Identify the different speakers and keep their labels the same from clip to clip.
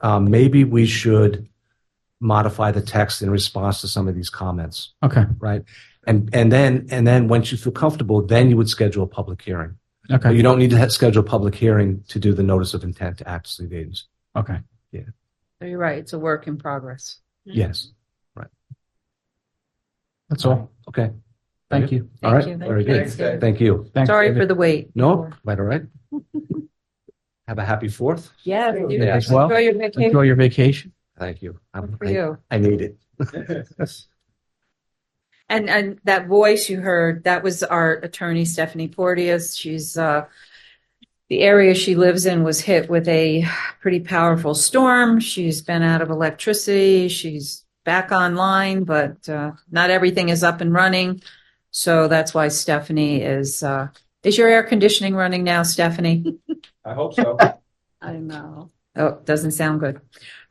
Speaker 1: um, maybe we should modify the text in response to some of these comments,
Speaker 2: Okay.
Speaker 1: right? And, and then, and then once you feel comfortable, then you would schedule a public hearing. But
Speaker 2: Okay.
Speaker 1: you don't need to ha- schedule a public hearing to do the notice of intent to act as lead agency.
Speaker 2: Okay.
Speaker 3: So You're right. It's a work in progress.
Speaker 1: Yes.
Speaker 2: That's all.
Speaker 1: Okay.
Speaker 2: Thank you.
Speaker 1: All
Speaker 3: Thank
Speaker 1: right.
Speaker 3: you.
Speaker 1: Very good.
Speaker 3: Thanks, David.
Speaker 1: Thank you.
Speaker 2: Thanks,
Speaker 3: Sorry for
Speaker 2: David.
Speaker 3: the wait.
Speaker 1: No, right, all right. Have a happy fourth.
Speaker 3: Yeah.
Speaker 1: you. Yeah,
Speaker 2: as well.
Speaker 3: Enjoy your vacation.
Speaker 2: Enjoy your vacation.
Speaker 1: Thank you.
Speaker 3: Good
Speaker 1: I'm-
Speaker 3: For
Speaker 1: I-
Speaker 3: you.
Speaker 1: I need it.
Speaker 3: And, and that voice you heard, that was our attorney Stephanie Porteous. She's, uh, the area she lives in was hit with a pretty powerful storm. She's been out of electricity. She's back online, but, uh, not everything is up and running. So that's why Stephanie is, uh, is your air conditioning running now, Stephanie?
Speaker 4: I hope so.
Speaker 3: I know. Oh, doesn't sound good.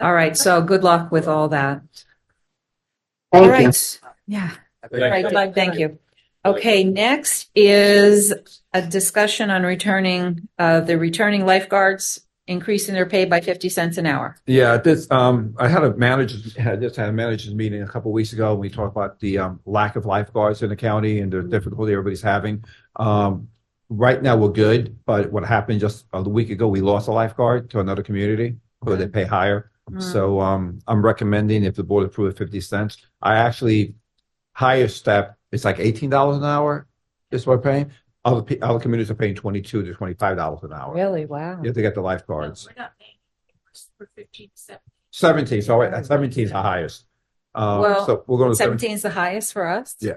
Speaker 3: All right, so good luck with all that. All right, yeah, right, good luck, thank you. Okay, next is a discussion on returning, uh, the returning lifeguards, increasing their pay by fifty cents an hour.
Speaker 4: Yeah, this, um, I had a manager's, had just had a manager's meeting a couple of weeks ago, and we talked about the, um, lack of lifeguards in the county and the difficulty everybody's having. Um, right now, we're good, but what happened just a week ago, we lost a lifeguard to another community where they pay higher.
Speaker 3: Hmm. Mm-hmm.
Speaker 4: So, um, I'm recommending if the board approves fifty cents, I actually, higher step, it's like eighteen dollars an hour is what we're paying. Other, pe- other communities are paying twenty-two to twenty-five dollars an hour.
Speaker 3: Really, wow.
Speaker 4: You have to get the lifeguards.
Speaker 5: We're not paying for fifteen percent.
Speaker 4: Seventeen, so wait, seventeen is the highest. Uh,
Speaker 3: Well,
Speaker 4: so we're going to seventeen,
Speaker 3: Seventeen's the highest for us?
Speaker 4: Yeah.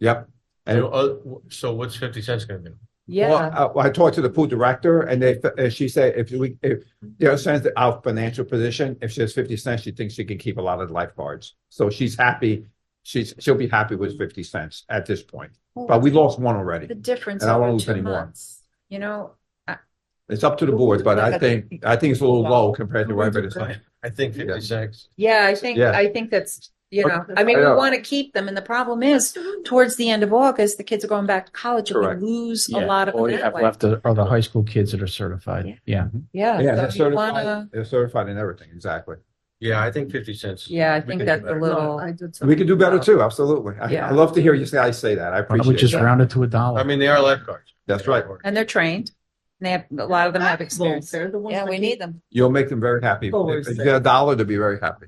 Speaker 4: yep. And,
Speaker 6: So, uh, w- so what's fifty cents gonna do?
Speaker 3: Yeah,
Speaker 4: well, uh, I I talked to the pool director and they, and she said if we, if, you know, since our financial position, if she has fifty cents, she thinks she can keep a lot of the lifeguards. So she's happy, she's, she'll be happy with fifty cents at this point, but we lost one already.
Speaker 3: the difference
Speaker 4: And I won't
Speaker 3: over
Speaker 4: lose
Speaker 3: two
Speaker 4: any more.
Speaker 3: months, you know,
Speaker 4: It's up to the board, but I think, I think it's a little low compared to what everybody's saying.
Speaker 6: I think
Speaker 4: Yeah.
Speaker 6: fifty cents.
Speaker 3: Yeah, I think,
Speaker 4: Yeah.
Speaker 3: I think that's, you know, I mean,
Speaker 4: I
Speaker 3: we
Speaker 4: know.
Speaker 3: want to keep them. And the problem is towards the end of August, the kids are going back to college and
Speaker 4: Correct.
Speaker 3: we lose a
Speaker 2: Yeah.
Speaker 3: lot of
Speaker 2: All
Speaker 3: them
Speaker 2: you have
Speaker 3: that way.
Speaker 2: left are the high school kids that are certified. Yeah.
Speaker 3: Yeah.
Speaker 4: Yeah,
Speaker 3: so
Speaker 4: they're
Speaker 3: you
Speaker 4: certified,
Speaker 3: wanna-
Speaker 4: they're certified in everything, exactly.
Speaker 6: Yeah, I think fifty cents.
Speaker 3: Yeah, I
Speaker 6: We
Speaker 3: think
Speaker 6: can do
Speaker 3: that's a
Speaker 6: better.
Speaker 3: little,
Speaker 4: We could do better too, absolutely. I,
Speaker 3: Yeah.
Speaker 4: I love to hear you say, I say that,
Speaker 2: Why
Speaker 4: I
Speaker 2: don't we
Speaker 4: appreciate
Speaker 2: just
Speaker 4: it.
Speaker 2: round it to a dollar?
Speaker 6: I mean, they are lifeguards.
Speaker 4: That's right.
Speaker 3: and they're trained. And they have, a lot of them have experience.
Speaker 5: They're the ones.
Speaker 3: Yeah,
Speaker 5: that
Speaker 3: we need them.
Speaker 4: You'll make them very happy. If
Speaker 5: Always
Speaker 4: if you
Speaker 5: say.
Speaker 4: get a dollar, they'll be very happy.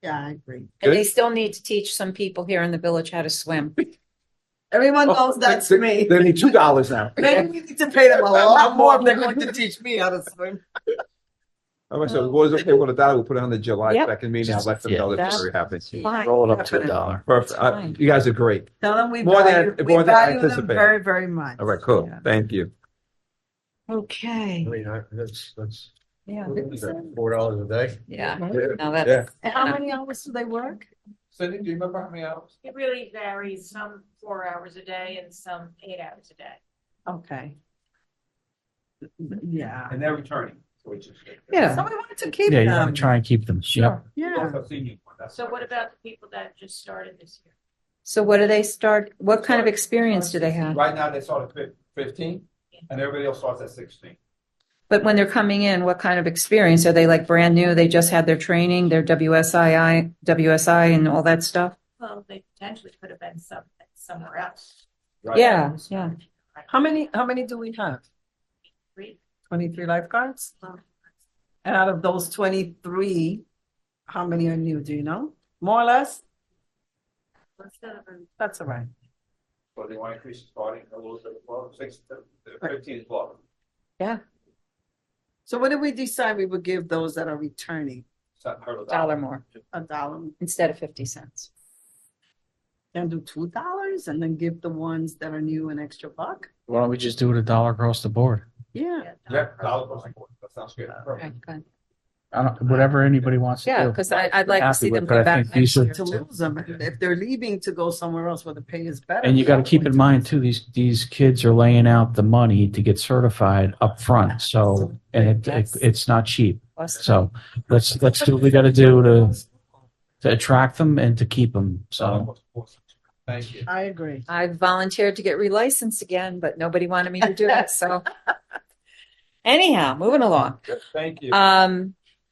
Speaker 5: Yeah, I agree.
Speaker 3: And
Speaker 4: Good.
Speaker 3: they still need to teach some people here in the village how to swim. Everyone
Speaker 5: Oh,
Speaker 3: calls that.
Speaker 5: that's me.
Speaker 4: They need two dollars now.
Speaker 5: Maybe we need to pay them a lot more if they're going to teach me how to swim.
Speaker 4: I said, well, it's okay, with a dollar, we'll put it on the July
Speaker 3: Yep.
Speaker 4: second meeting, I'll let them know they're very happy.
Speaker 3: Fine.
Speaker 2: Roll it up to a dollar.
Speaker 4: Perfect, I-
Speaker 3: Fine.
Speaker 4: you guys are great.
Speaker 5: Tell them we
Speaker 4: More than-
Speaker 5: value, we
Speaker 4: more than
Speaker 5: value them
Speaker 4: anticipated.
Speaker 5: very, very much.
Speaker 4: All right, cool, thank you.
Speaker 6: I
Speaker 3: Okay,
Speaker 6: mean, I- that's, that's
Speaker 3: yeah,
Speaker 6: four dollars a day.
Speaker 3: yeah.
Speaker 4: Yeah.
Speaker 3: Now that's,
Speaker 5: And how many hours do they work?
Speaker 4: Cindy, do you remember how many hours?
Speaker 7: It really varies, some four hours a day and some eight hours a day.
Speaker 5: Okay. Yeah.
Speaker 4: And they're returning, which is.
Speaker 3: yeah.
Speaker 5: So we wanted to keep
Speaker 2: Yeah, you
Speaker 3: Um,
Speaker 2: want
Speaker 5: them.
Speaker 2: to try and keep them. Yep.
Speaker 5: Yeah.
Speaker 7: So what about the people that just started this year?
Speaker 3: So what do they start, what kind of experience do they have?
Speaker 4: Right now, they start at fifteen, and everybody else starts at sixteen.
Speaker 3: But when they're coming in, what kind of experience? Are they like brand new? They just had their training, their WSII, WSI and all that stuff?
Speaker 7: Well, they potentially could have been some, somewhere else.
Speaker 3: Yeah, yeah.
Speaker 5: How many, how many do we have?
Speaker 7: Three.
Speaker 5: Twenty-three lifeguards? And out of those twenty-three, how many are new, do you know? More or less?
Speaker 7: Instead of a-
Speaker 5: That's all right.
Speaker 4: So they want to increase the starting a little bit, well, six, fifteen is low.
Speaker 5: So what did we decide we would give those that are returning?
Speaker 3: Dollar more
Speaker 5: A dollar,
Speaker 3: instead of 50 cents.
Speaker 5: and do two dollars and then give the ones that are new an extra buck?
Speaker 2: Why don't we just do it a dollar across the board?
Speaker 5: Yeah.
Speaker 4: Yeah, dollar across the board. that sounds good.
Speaker 3: Okay, good.
Speaker 2: I don't, whatever anybody wants to do.
Speaker 3: Yeah, because I'd like to
Speaker 2: Happy
Speaker 3: see
Speaker 2: with
Speaker 3: them
Speaker 2: it,
Speaker 3: come
Speaker 2: but I
Speaker 3: back
Speaker 2: think
Speaker 3: next
Speaker 2: these are-
Speaker 3: year.
Speaker 5: To lose them, if they're leaving to go somewhere else where the pay is better.
Speaker 2: And you got to keep in mind too, these, these kids are laying out the money to get certified up front. So, and it, it, it's not cheap. So let's, let's do what we got to do to, to attract them and to keep them. So
Speaker 4: Thank you.
Speaker 5: I agree.
Speaker 3: I volunteered to get relicensed again, but nobody wanted me to do it, so. Anyhow, moving along.
Speaker 4: Thank you.
Speaker 3: Um,